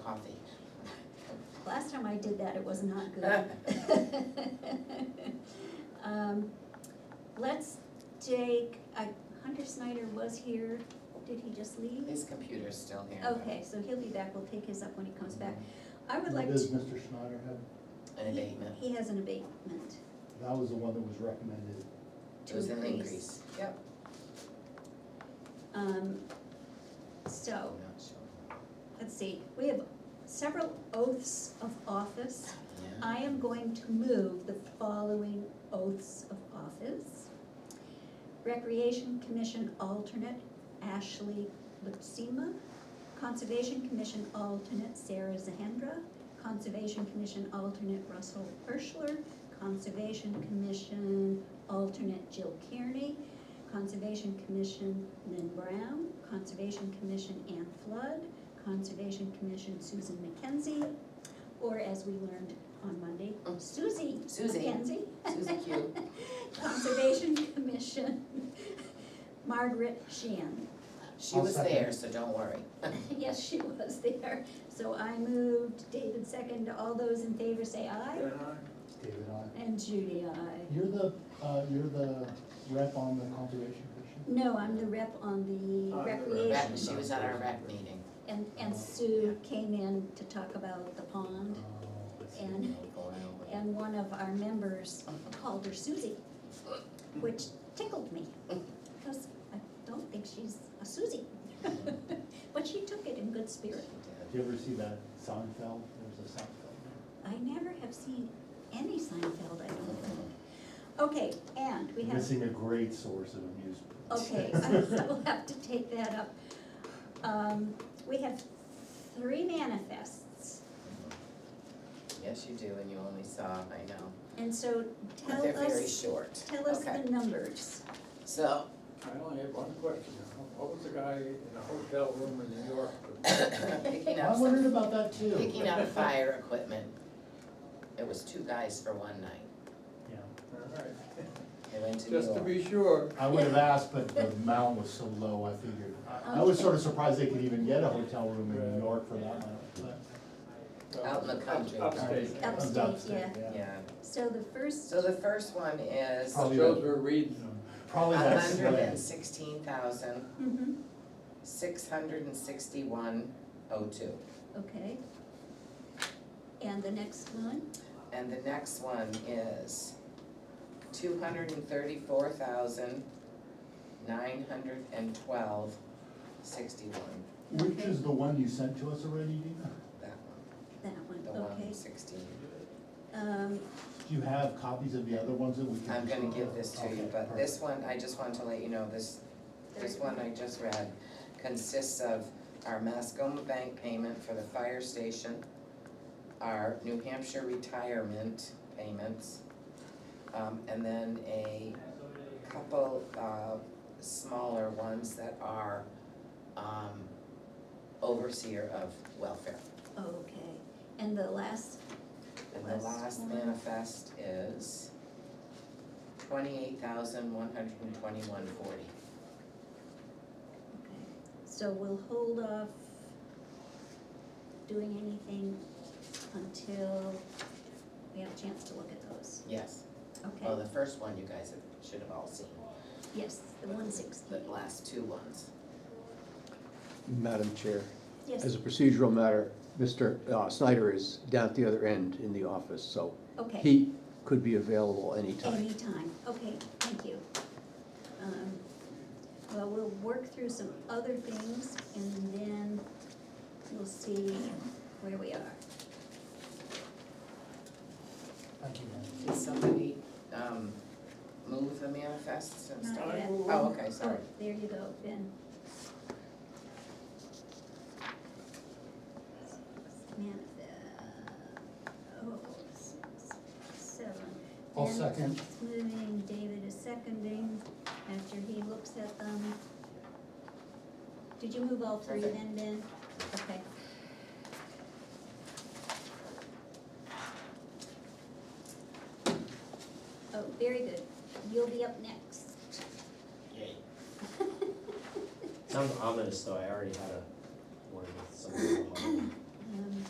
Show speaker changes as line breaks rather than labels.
coffee.
Last time I did that, it was not good. Um, Let's take, I- Hunter Snyder was here, did he just leave?
His computer's still here. but-
Okay, so he'll be back, we'll take his up when he comes back. I would like
What
to.
does Mr. Schneider have?
An abatement.
He has an abatement
That was the one that was recommended.
It
to
was an
increase.
increase. Yep.
Um, so,
I'm not sure.
let's see, we have several oaths of office.
Yeah.
I am going to move the following oaths of office. Recreation Commission alternate Ashley Lipsima. Conservation Commission alternate Sarah Zahendra. Conservation Commission alternate Russell Urschler. Conservation Commission alternate Jill Kearney. Conservation Commission Lynn Brown. Conservation Commission Ann Flood. Conservation Commission Susan McKenzie. Or as we learned on Monday,
Mm.
Susie
Susie.
McKenzie.
Susie Q.
Conservation Commission, Margaret Shan.
She
I'll
was
second.
there, so don't worry.
Yes, she was there. So I moved, David second, all those in favor say aye.
David, I,
And Judy, aye.
you're the, uh, you're the rep on the conservation commission?
No, I'm the rep on the
I'm Oh, the rep.
recreation.
Rec- She was at our rec meeting.
And, and Sue came in to talk about the pond.
Oh, I see.
Um, And,
Go around with it.
and one of our members called her Susie, which tickled me, because I don't think she's a Susie. But she took it in good
She
spirit.
Did
did.
you ever see that Seinfeld? There's a Seinfeld.
I never have seen any Seinfeld, I don't think.
Mm-hmm.
Okay, and we have,
Missing a great source of amusement.
okay, I will have to take that up. Um, we have three manifests,
Yes, you do, and you only saw, I know.
and so
But
tell
they're very
us,
short.
tell us the
Okay.
numbers.
So,
I only have one question. What was the guy in the hotel room in New York?
picking
I
up
wondered
some,
about that too.
picking up fire equipment. It was two guys for one night.
Yeah,
Alright,
They went to New
Just to
York.
be sure.
I would have asked, but the amount was so low, I figured. I- I was sort of surprised they could even get a hotel room in New York for that amount, but.
Out in the country.
Upstate.
Up- Upstate,
Upstate,
Yeah,
So the first,
so the first one is
Probably-
Those were reading.
Probably
a
that's.
hundred and sixteen thousand,
mhm,
six hundred and sixty-one oh two.
okay. And the next one,
And the next one is two hundred and thirty-four thousand, nine hundred and twelve, sixty-one.
Which is the one you sent to us already, Dina?
That one,
that one,
the
okay.
one sixteen.
Um,
Do you have copies of the other ones that we can?
I'm
just-
gonna give this to you,
Okay,
but this
perfect.
one, I just want to let you know, this, this one I just read consists of our Mascoma Bank payment for the fire station, our New Hampshire retirement payments, um, and then a couple, uh, smaller ones that are, um, overseer of welfare.
okay, and the last,
And the
Last
last
one.
manifest is twenty-eight thousand, one hundred and twenty-one forty.
okay, so we'll hold off doing anything until we have a chance to look at those,
Yes, well,
okay?
Oh, the first one you guys have- should have all seen,
Yes, the one sixty,
the last two ones.
Madam Chair, as
yes,
a procedural matter, Mr. uh, Snyder is down at the other end in the office, so
okay,
he could be available anytime.
anytime, okay, thank you. Um, Well, we'll work through some other things and then we'll see where we are.
Thank you, ma'am.
Did somebody, um, move the manifests and stuff?
Not yet.
Oh, okay,
Oh,
sorry.
there you go, Ben. Manifest, oh, six, seven.
I'll
Ben
second.
is Moving, David is seconding after he looks at them. Did you move all three
Okay.
then, Ben? Okay. Oh, very good. You'll be up next.
Yay. Sounds ominous, though, I already had a